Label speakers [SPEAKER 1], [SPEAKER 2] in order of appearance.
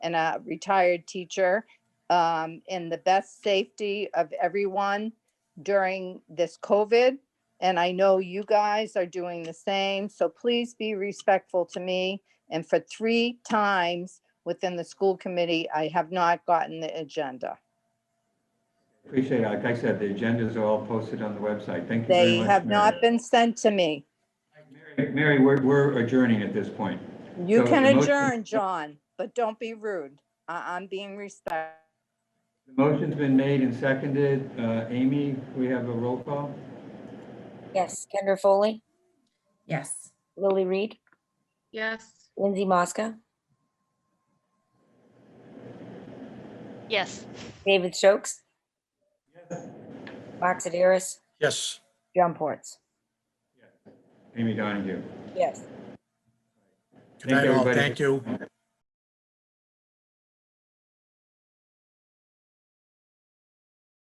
[SPEAKER 1] and a retired teacher um, in the best safety of everyone during this COVID. And I know you guys are doing the same, so please be respectful to me. And for three times within the school committee, I have not gotten the agenda.
[SPEAKER 2] Appreciate it. Like I said, the agendas are all posted on the website. Thank you very
[SPEAKER 1] They
[SPEAKER 2] much.
[SPEAKER 1] have not
[SPEAKER 2] Mary.
[SPEAKER 1] been sent to me.
[SPEAKER 2] Mary, Mary, we're, we're adjourning at this point.
[SPEAKER 1] You
[SPEAKER 2] So
[SPEAKER 1] can
[SPEAKER 2] the motion-
[SPEAKER 1] adjourn, John, but don't be rude. I, I'm being respectful.
[SPEAKER 2] The motion's been made and seconded. Uh, Amy, we have a roll call?
[SPEAKER 3] Yes, Kendra Foley,
[SPEAKER 4] Yes.
[SPEAKER 3] Lily Reed,
[SPEAKER 5] Yes.
[SPEAKER 3] Lindsay Mosca,
[SPEAKER 5] Yes.
[SPEAKER 3] David Stokes. Mark Sideris,
[SPEAKER 6] Yes.
[SPEAKER 3] John Ports.
[SPEAKER 2] Amy Donahue.
[SPEAKER 3] Yes.
[SPEAKER 6] Good
[SPEAKER 2] Thank
[SPEAKER 6] night, all.
[SPEAKER 2] everybody.
[SPEAKER 6] Thank you.